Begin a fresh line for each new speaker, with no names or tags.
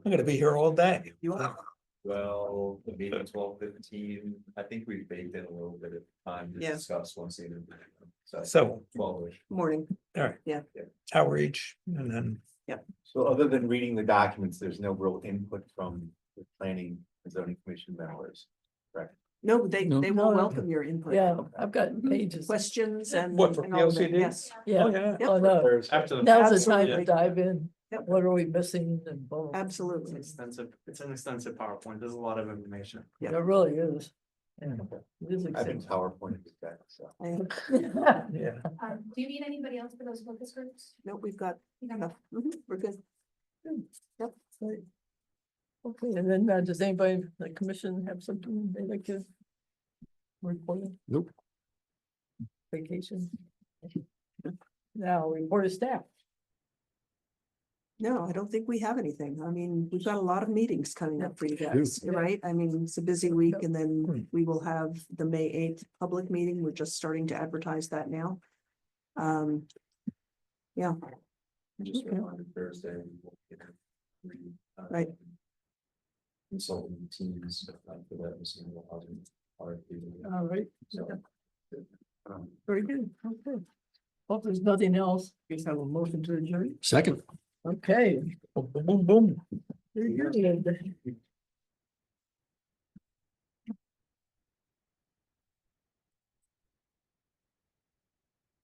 I'm gonna be here all day. You are.
Well, maybe twelve fifteen, I think we baked in a little bit of time to
Yeah.
discuss once even. So
So
twelve.
morning.
hour each and then,
So other than reading the documents, there's no real input from the planning and zoning commission members.
No, they,
No.
they
No,
will
no.
welcome your input.
Yeah, I've got
Mm-hmm.
pages.
Questions and.
What, for
and all of that,
PLCD?
Yes.
oh,
Yeah,
yeah.
Yep.
oh, no,
After the.
now's the time
Absolutely.
to dive in.
Yep.
What are we missing and blah, blah, blah.
Absolutely.
extensive, it's an extensive PowerPoint, there's a lot of information.
Yep.
It really is. Yeah. It is
I've been
exciting.
PowerPoint with that, so.
yeah,
Um, do you need anybody else for those focus groups?
No, we've got
You have-
enough. Mhm, We're good. Yep.
Okay, and then uh, does anybody, in the commission have something they'd like to report?
Nope.
Vacation. Now, report of staff.
No, I don't think we have anything. I mean, we've got a lot of meetings coming up for you
Yeah.
guys, right? I mean, it's a busy week and
Hmm.
then we will have the May eighth public meeting. We're just starting to advertise that now. Um. Yeah,
Just
Okay.
reminded Thursday. we will get a re- uh,
Right.
Consulting teams uh, for that, we see what other RFP,
All right,
so.
Oh.
Um,
very good. Okay. Hope there's nothing else. Guess I will motion to adjourn.
Second.
Okay.
boom, boom, boom.
very good.